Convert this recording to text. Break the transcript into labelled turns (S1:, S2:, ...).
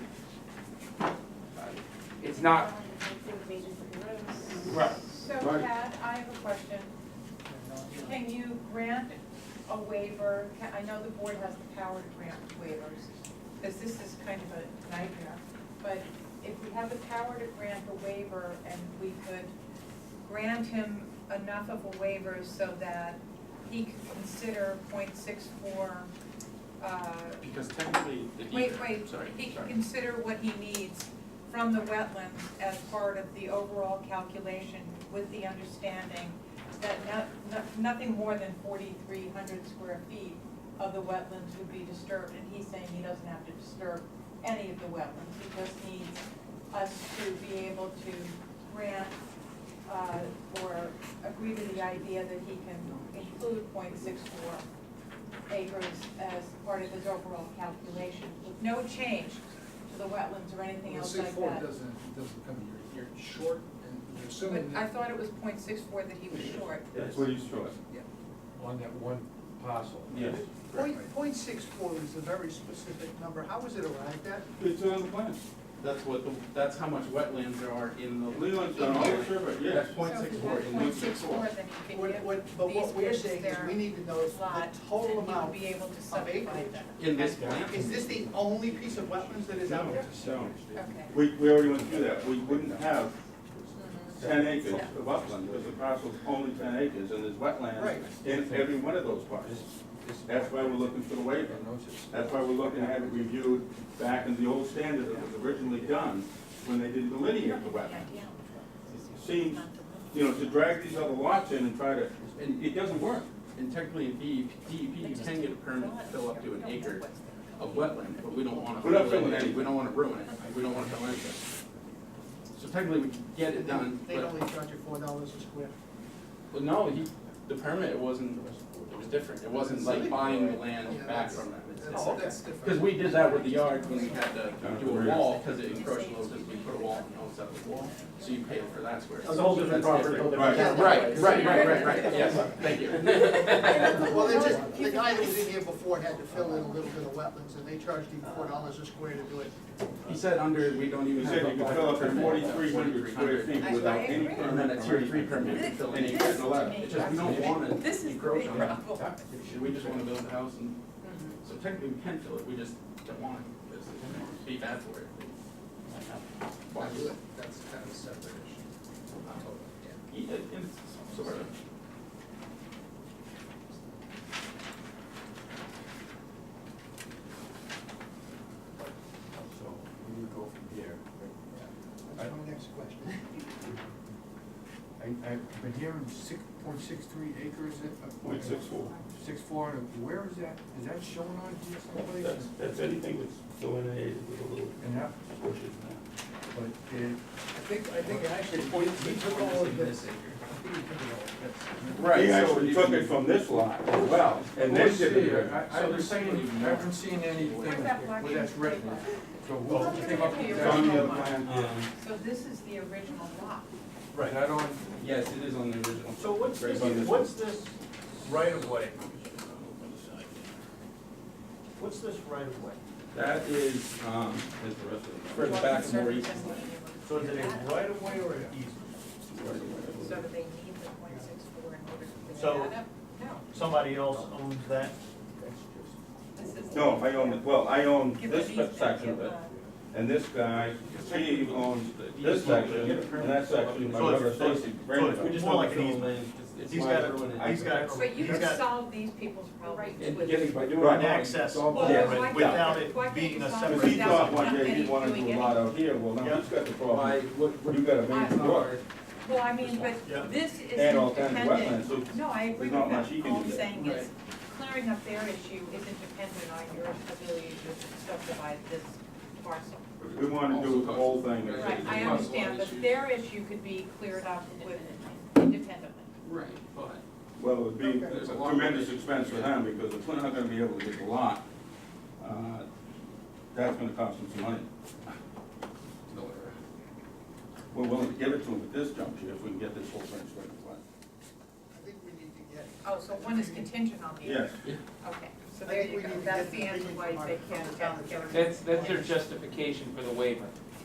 S1: it's not, right,
S2: So
S3: Right.
S2: Pat, I have a question. Can you grant a waiver, Can- I know the board has the power to grant waivers, because this is kind of a nightmare, but if we have the power to grant a waiver and we could grant him enough of a waiver so that he could consider point six four, uh,
S1: because technically, the
S2: Wait,
S1: deed,
S2: wait.
S1: sorry,
S2: he can
S1: sorry.
S2: consider what he needs from the wetlands as part of the overall calculation with the understanding that not, not- nothing more than forty-three hundred square feet of the wetlands would be disturbed, and he's saying he doesn't have to disturb any of the wetlands, he just needs us to be able to grant, uh, or agree to the idea that he can include point six four acres as part of his overall calculation, with no change to the wetlands or anything
S3: Well,
S2: else
S3: six
S2: like
S3: four
S2: that.
S3: doesn't, it doesn't come, you're, you're short, and you're
S2: But
S3: assuming
S2: I
S3: that
S2: thought it was point six four that he was short.
S4: That's what he's showing.
S5: on that one parcel.
S1: Yes,
S6: Point, point six four is a very specific number, how was it arrived at?
S1: it's on the plan, that's what, the that's how much wetlands there are in the.
S4: Leland's done all the survey, yes.
S1: That's point
S2: So if
S1: six
S2: you
S1: four,
S2: have
S1: in
S2: Point
S1: Luke
S2: six
S1: six
S2: four,
S1: four.
S2: then he
S6: What,
S2: could give
S6: what, but
S2: these
S6: what we're
S2: widths
S6: saying
S2: there,
S6: is we need to know the
S2: lot, and he
S6: total
S2: would
S6: amount.
S2: be able to
S6: of
S2: subdivide
S6: acreage.
S2: that.
S1: in this plan.
S6: Is this the only piece of wetlands that is out
S4: No,
S6: there?
S4: no.
S2: Okay.
S4: We, we already went through that, we wouldn't have ten acres of upland, because the parcel's only ten acres, and there's
S6: Right.
S4: wetlands in every one of those parcels. That's why we're looking for the waiver, that's why we're looking to have it reviewed back in the old standard that was originally done, when they didn't delineate the wetland. Seems, you know, to drag these other lots in and try to,
S1: And it doesn't work, and technically in E DEP, DEP, you can get a permit to fill up to an acre of wetland, but we don't wanna.
S4: We're not
S1: fill it in.
S4: filling any.
S1: We don't wanna ruin it, we don't wanna fill anything. So technically, we can get it done,
S6: They
S1: but,
S6: only charge you four dollars a square.
S1: but no, he, the permit, it wasn't, it was different, it wasn't like buying the land back from them. It's- it's-
S6: Oh, that's
S1: Cause
S6: different.
S1: we did that with the yard when we had to do a wall, cause it encroached a little, cause we put a wall and all set the wall, so you paid for that square.
S5: It's a whole different property, whole different.
S1: Right,
S4: Right.
S1: right, right, right, right, yes, thank you.
S6: Well, they just, the guy that was in here before had to fill in a little bit of wetlands, and they charged him four dollars a square to do it.
S1: He said under, we don't even
S4: you
S1: have
S4: said
S1: a
S4: you could fill up to
S1: permit,
S4: forty-three hundred square
S1: 4,300.
S4: feet without any permit.
S1: And then a tier three permit, you fill
S4: And
S1: any,
S4: you get an eleven.
S1: it's just, we don't wanna
S2: This is the
S1: encroach
S2: big
S1: on that.
S2: problem. Mm-hmm.
S1: We just wanna build a house and, so technically we can fill it, we just don't want it, because it'd be bad for it. Why do it?
S3: That's kind of a separate issue. Not totally, yeah.
S1: Yeah, and sort of.
S5: So, we would go from here.
S6: That's my next question.
S5: I, I've been hearing six point six three acres. at-
S4: Point six four.
S5: Six four, and where is that, is that shown on here someplace?
S7: That's, that's anything that's delineated with a little
S5: And that,
S7: bushes
S5: but it,
S6: I think, I think actually, he took all of this. I think he took it all.
S4: He
S1: so
S4: actually
S1: if
S4: took
S1: you-
S4: it from this lot as well, and then
S5: Let's see,
S4: did it.
S5: I, I
S1: So
S5: haven't
S1: there's
S5: seen,
S1: somebody-
S5: I haven't seen anything
S1: Where's
S2: that black
S5: where that's
S2: piece of
S5: written,
S2: paper?
S5: so we'll
S2: Oh,
S5: come up with
S2: it's
S4: It's
S5: that.
S4: on the other plan.
S2: So this is the original lot.
S5: Is that on
S1: Yes, it is on the original.
S8: So what's
S1: Right
S8: this,
S1: on this
S8: what's this,
S5: right of way?
S8: what's this right of way?
S1: That is, um, is the rest of it. Further back, more east.
S8: So is it a right of way or an easement?
S2: So do they need the point six four in order to
S8: So-
S2: figure that out? No,
S8: Somebody else owns that?
S2: this is.
S4: No, I own, it. well, I own
S2: Give
S4: this
S2: an easement,
S4: section of
S2: give
S4: it,
S2: a-
S1: uh,
S4: and this guy, he owns this section, and that section, my
S8: So it's-
S4: brother
S8: so it's-
S4: Stacy.
S8: so it's- we just want like an
S1: It's-
S8: easement.
S1: it's
S8: He's
S1: why
S8: got
S1: everyone-
S8: a, he's got a.
S2: But you
S8: he's
S2: can
S8: got
S2: solve these people's problems
S1: And
S2: with.
S1: getting by doing.
S4: Right.
S8: An access
S5: Well,
S2: Well,
S4: Yeah,
S2: why
S8: easement
S2: can't-
S8: without
S2: why
S8: it
S2: can't
S8: being
S2: you
S8: a
S2: solve
S4: Because
S8: separate.
S4: he thought
S2: Without
S4: one day he
S2: any-
S4: wanted to
S2: doing
S4: do a lot out here, well, now he's got the
S1: By
S4: problem,
S1: what, what
S4: you gotta make it work,
S2: Well, I mean,
S8: Yeah.
S2: but this is
S4: and all kinds of
S2: independent.
S4: wetlands, so
S2: No, I agree
S4: There's not
S2: with
S4: much you
S2: that.
S4: can
S2: All
S4: do
S2: I'm
S4: there.
S2: saying is clearing up their issue is independent on your ability to subdivide this parcel.
S4: we wanna do the whole thing.
S2: Right, I
S1: Parcel
S2: understand, but
S1: issues.
S2: their issue could be cleared up with independently.
S1: Right, but.
S4: Well, it would be
S1: There's a
S4: a
S1: lot.
S4: tremendous expense for them, because if we're not gonna be able to get the lot, uh, that's gonna cost them some money. We're willing to give it to them at this juncture, if we can get this whole thing straightened out.
S6: I think we need to get.
S2: Oh, so one is contingent on the other.
S4: Yes,
S2: Okay, so
S6: I
S2: there
S6: think
S2: you
S6: we
S2: go.
S6: need to
S2: That's
S6: get
S2: the
S6: the
S2: answer
S6: opinion
S2: why
S6: from
S2: they
S6: our-
S2: can't
S6: from our
S2: get.
S6: attorney.
S9: That's, that's their justification for the waiver.